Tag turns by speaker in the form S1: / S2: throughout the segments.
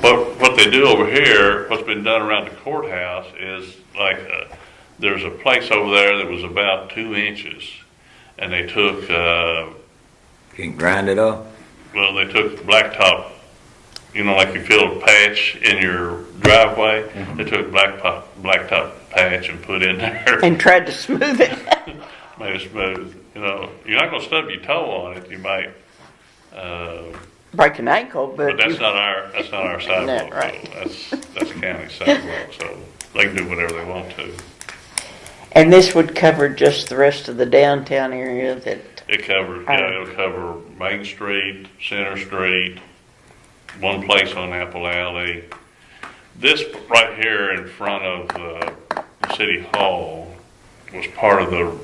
S1: But what they do over here, what's been done around the courthouse is like, uh, there's a place over there that was about two inches. And they took, uh,
S2: You can grind it up.
S1: well, they took blacktop, you know, like you fill a patch in your driveway. They took black po- blacktop patch and put in there.
S3: and tried to smooth it.
S1: made it smooth. You know, you're not gonna stub your toe on it. You might, uh,
S3: Break an ankle,
S1: But
S3: but,
S1: that's
S3: you,
S1: not our, that's not our sidewalk,
S3: right.
S1: though. That's, that's county sidewalk, so they can do whatever they want to.
S3: and this would cover just the rest of the downtown area that
S1: It covers, yeah, it'll cover Main Street, Center Street, one place on Apple Alley. This right here in front of, uh, City Hall was part of the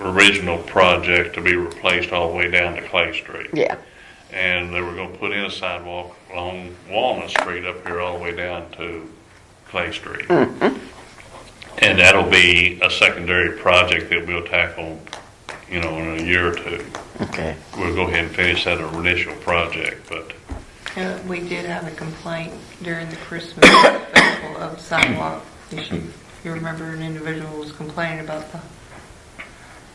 S1: original project to be replaced all the way down to Clay Street.
S3: yeah
S1: And they were gonna put in a sidewalk along Walnut Street up here all the way down to Clay Street. And that'll be a secondary project that we'll tackle, you know, in a year or two.
S3: okay
S1: We'll go ahead and finish that initial project, but
S4: Uh, We did have a complaint during the Christmas festival of sidewalk issue. You remember an individual was complaining about the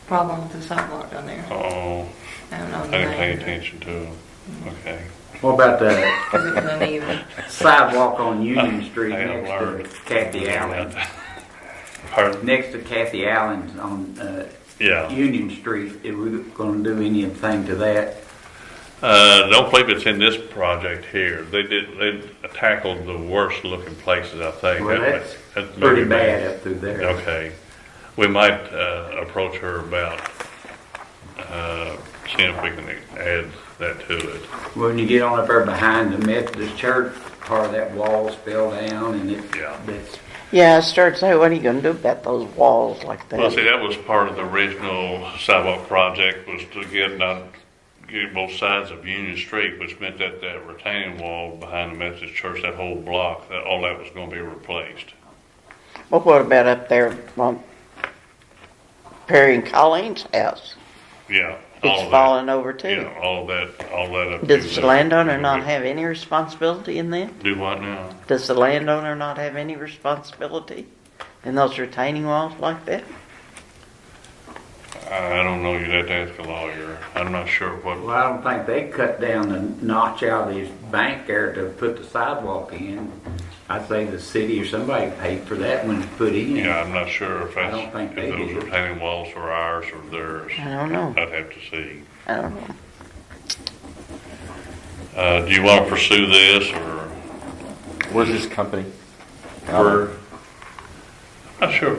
S4: problem with the sidewalk down there.
S1: oh,
S4: I don't know
S1: I
S4: the
S1: didn't pay
S4: name.
S1: attention to them. Okay.
S5: What about the
S4: It was uneven.
S5: sidewalk on Union Street
S1: I have
S5: next
S1: learned.
S5: to Kathy Allen?
S1: Pardon?
S5: Next to Kathy Allen's on uh,
S1: Yeah.
S5: Union Street, are we going to do anything to that?
S1: Uh, don't believe it's in this project here. They did, they tackled the worst looking places, I think.
S5: Well,
S1: That-
S5: that's
S1: that's
S5: pretty
S1: maybe bad.
S5: bad up through there.
S1: Okay. We might uh, approach her about uh, seeing if we can add that to it.
S5: When you get on up there behind the Methodist church, part of that wall's fell down and it,
S1: Yeah.
S5: that's,
S3: yeah i started saying what are you going to do about those walls like that
S1: Well, see, that was part of the original sidewalk project was to get not, get both sides of Union Street, which meant that that retaining wall behind the Methodist Church, that whole block, that all that was going to be replaced.
S3: well what about up there on perry and colleen's house
S1: Yeah. all
S3: it's
S1: of that.
S3: falling over too
S1: Yeah, uh, all of that, all that up.
S3: does
S1: to
S3: the
S1: the-
S3: landowner not have any responsibility in that
S1: Do what now?
S3: does the landowner not have any responsibility in those retaining walls like that
S1: I I don't know. You'd have to ask a lawyer. I'm not sure what.
S5: well, I don't think they cut down the notch out of this bank there to put the sidewalk in. I'd say the city or somebody paid for that when it's put in.
S1: Yeah, I'm not sure if
S5: I
S1: that's,
S5: don't think
S1: if
S5: they
S1: those
S5: do.
S1: retaining walls are ours or theirs.
S3: i don't know
S1: I'd have to see.
S3: i don't know
S1: Uh, do you want to pursue this or
S6: Where's this company?
S1: we're, not sure.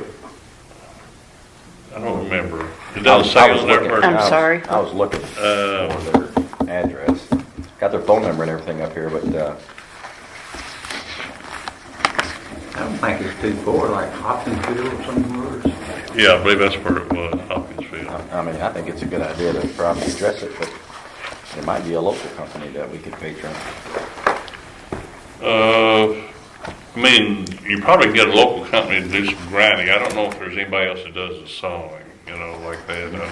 S1: I don't remember. It doesn't say
S6: I was
S1: on there.
S6: looking.
S1: or-
S3: I'm
S6: I was-
S3: sorry.
S6: I was looking
S1: Uh,
S6: for their address. Got their phone number and everything up here, but, uh,
S5: I don't think it's too far, like Hopkinsville or somewhere.
S1: Yeah, I believe that's where it was, Hopkinsville.
S6: I I mean, I think it's a good idea to probably address it, but it might be a local company that we could patron.
S1: Uh, I mean, you probably can get a local company to do some grinding. I don't know if there's anybody else that does the sawing, you know, like that. Uh,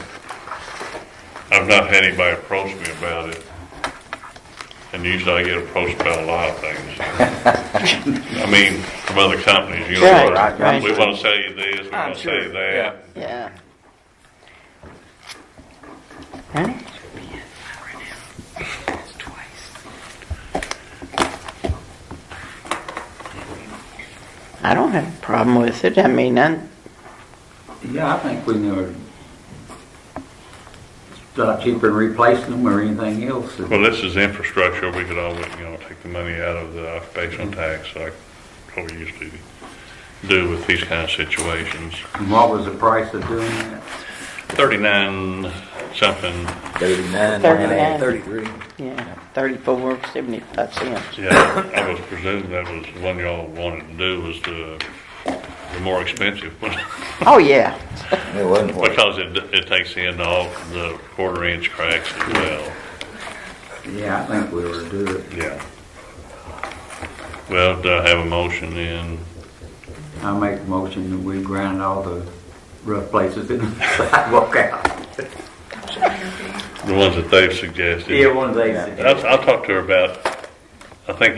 S1: I've not had anybody approach me about it. And usually I get approached about a lot of things. I mean, from other companies, you know,
S3: Right,
S1: like,
S3: right.
S1: we wanna sell you this, we wanna sell you
S6: yeah.
S1: that.
S3: yeah Huh? I don't have a problem with it. I mean, I,
S5: Yeah, I think we never stop cheaper and replacing them or anything else.
S1: Well, this is infrastructure, we could always, you know, take the money out of the occupational tax, like what we usually do with these kind of situations.
S5: And what was the price of doing that?
S1: 39 something,
S2: Thirty-nine,
S3: 39.
S2: thirty-three.
S3: yeah, 34, 75 cents.
S1: yeah, I was presuming that was the one y'all wanted to do was the, the more expensive one.
S3: Oh, yeah.
S2: It wasn't for it.
S1: Because it, it takes in all the quarter inch cracks as well,
S5: Yeah, I think we were to do it.
S1: yeah. Well, do I have a motion then?
S5: I make a motion that we grind all the rough places in the sidewalk out.
S1: The ones that they've suggested?
S5: Yeah, one of these.
S1: I'll, I'll talk to her about, I think